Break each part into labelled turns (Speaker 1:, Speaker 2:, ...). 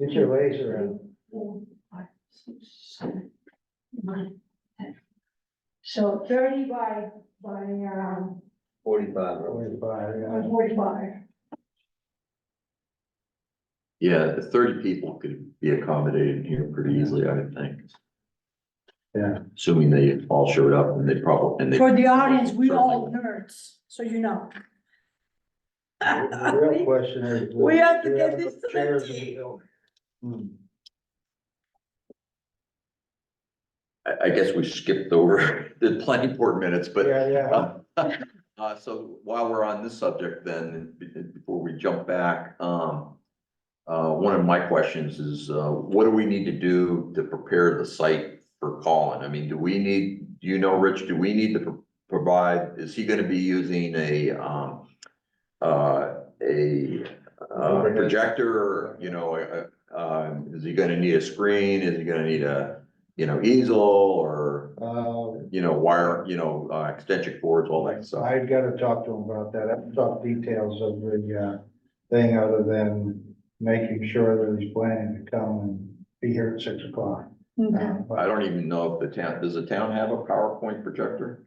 Speaker 1: Get your legs around.
Speaker 2: four, five, six, seven, nine, ten. So thirty by, by, um,
Speaker 3: Forty-five, or
Speaker 1: Forty-five,
Speaker 2: by
Speaker 1: yeah.
Speaker 2: forty-five.
Speaker 4: Yeah, the thirty people could be accommodated here pretty easily, I would think.
Speaker 1: Yeah.
Speaker 4: Assuming they all showed up and they probably, and they.
Speaker 5: For the audience, we all nerds, so you know.
Speaker 1: The real question is.
Speaker 5: We have to
Speaker 1: do we
Speaker 5: get
Speaker 1: enough
Speaker 5: this to the
Speaker 1: chairs in the
Speaker 5: team.
Speaker 1: building? Hmm,
Speaker 4: I, I guess we skipped over the planning board minutes, but,
Speaker 1: Yeah, yeah.
Speaker 4: uh, so while we're on this subject then, be- before we jump back, um, uh, one of my questions is, uh, what do we need to do to prepare the site for Colin? I mean, do we need, do you know, Rich, do we need to pro- provide, is he gonna be using a, um, uh, a, uh,
Speaker 1: Overhead.
Speaker 4: projector, you know, a, a- um, is he gonna need a screen? Is he gonna need a, you know, easel or,
Speaker 1: Um,
Speaker 4: you know, wire, you know, uh, extension cords, all that stuff?
Speaker 1: I've got to talk to him about that. I haven't talked details of the, uh, thing other than making sure that he's planning to come and be here at six o'clock.
Speaker 5: Mhm.
Speaker 1: Um,
Speaker 4: I
Speaker 1: but
Speaker 4: don't even know if the town, does the town have a PowerPoint projector?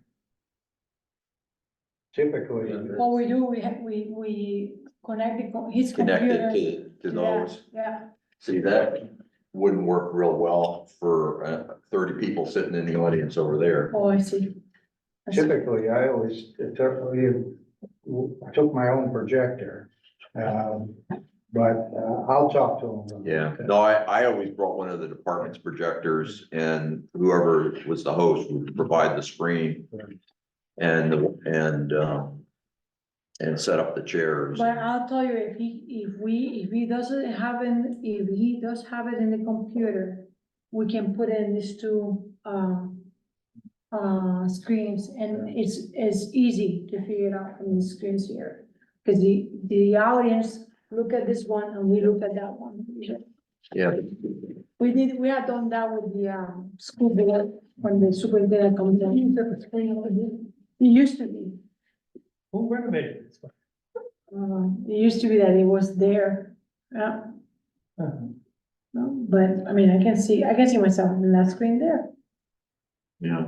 Speaker 1: Typically,
Speaker 5: What we do, we have, we, we connect the co- his computer.
Speaker 4: Connected to, to
Speaker 5: yeah,
Speaker 4: those?
Speaker 5: Yeah,
Speaker 4: See, that wouldn't work real well for, uh, thirty people sitting in the audience over there.
Speaker 5: oh, I see. I see.
Speaker 1: typically, I always, typically, I took my own projector. Um, but, uh, I'll talk to him. about
Speaker 4: Yeah,
Speaker 1: that.
Speaker 4: no, I, I always brought one of the department's projectors and whoever was the host would provide the screen. And, the- and, um, and set up the chairs.
Speaker 5: But I'll tell you, if he, if we, if he doesn't have it, if he does have it in the computer, we can put in these two, um, uh, screens, and it's, it's easy to figure it out from the screens here. Cause the, the audience look at this one and we look at that one.
Speaker 4: Yeah,
Speaker 5: We did, we had done that with the, um, school board, when the superintendent comes in. It used to be.
Speaker 6: Who renovated this?
Speaker 5: Uh, it used to be that it was there, yeah.
Speaker 6: one?
Speaker 5: No, But, I mean, I can see, I can see myself in that screen there.
Speaker 4: yeah.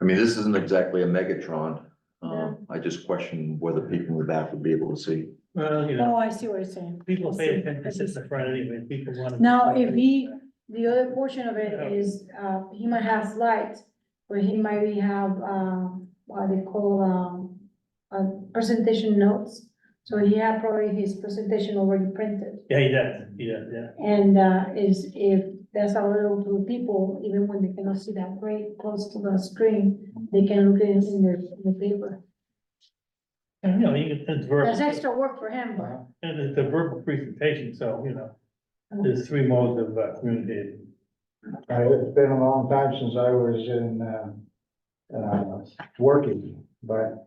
Speaker 4: I mean, this isn't exactly a Megatron.
Speaker 5: Yeah.
Speaker 4: Um, I just question whether people in the back would be able to see.
Speaker 6: Well, you know,
Speaker 5: Oh, I see what you're saying.
Speaker 6: people
Speaker 5: I
Speaker 6: pay
Speaker 5: see.
Speaker 6: attention to the front anyway, people want to.
Speaker 5: Now, if he, the other portion of it is, uh, he might have slides, or he might be have, um, what they call, um, uh, presentation notes. So he had probably his presentation already printed,
Speaker 6: Yeah, he does, he does, yeah.
Speaker 5: and, uh, is, if that's available to people, even when they cannot see that great close to the screen, they can look at it in their, in the paper.
Speaker 6: And, you know, you get, it's verbal,
Speaker 5: Uh-huh. That's extra work for him,
Speaker 1: Uh,
Speaker 5: but.
Speaker 6: and it's a verbal presentation, so, you know,
Speaker 5: Uh-huh.
Speaker 6: there's three modes of uh, communicating.
Speaker 1: I- It's been a long time since I was in, uh, uh, working, but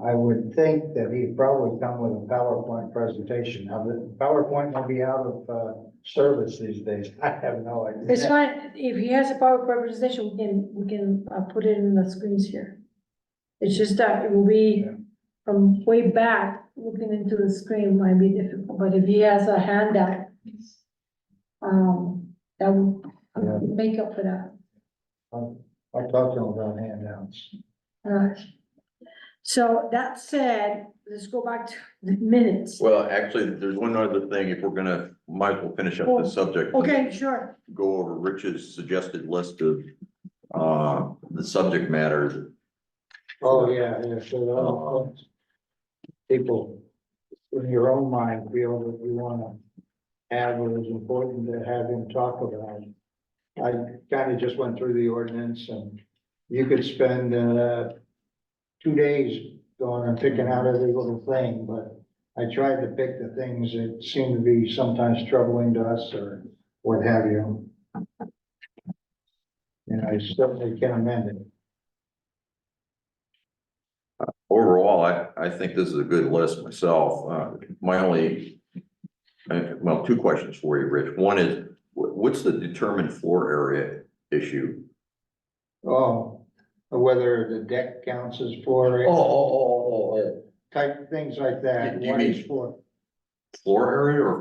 Speaker 1: I would think that he'd probably come with a PowerPoint presentation. Now, the PowerPoint will be out of, uh, service these days. I have no idea.
Speaker 5: It's fine, if he has a PowerPoint presentation, we can, we can, uh, put it in the screens here. It's just that it will be
Speaker 1: Yeah.
Speaker 5: from way back, looking into the screen might be difficult, but if he has a handout, um, that will
Speaker 1: Yeah.
Speaker 5: make up for that.
Speaker 1: I'll I'll talk to him about handouts.
Speaker 5: Alright. So that said, let's go back to the minutes.
Speaker 4: Well, actually, there's one other thing, if we're gonna, might as well finish up
Speaker 5: Oh,
Speaker 4: this subject.
Speaker 5: Okay, sure.
Speaker 4: Go over Rich's suggested list of, uh, the subject matters.
Speaker 1: Oh, yeah, yeah, so, I'll- I'll- people in your own mind feel that you wanna have what is important to have him talk about. I kinda just went through the ordinance and you could spend, uh, two days going and picking out every little thing, but I tried to pick the things that seem to be sometimes troubling to us or what have you. And I certainly can amend it.
Speaker 4: Overall, I, I think this is a good list myself. Uh, my only, uh, well, two questions for you, Rich. One is, wh- what's the determined floor area issue?
Speaker 1: Oh, whether the deck counts as for
Speaker 4: Oh, oh, oh, oh, oh,
Speaker 1: type things like that.
Speaker 4: You
Speaker 1: What
Speaker 4: mean-
Speaker 1: is for?
Speaker 4: oh. Floor area or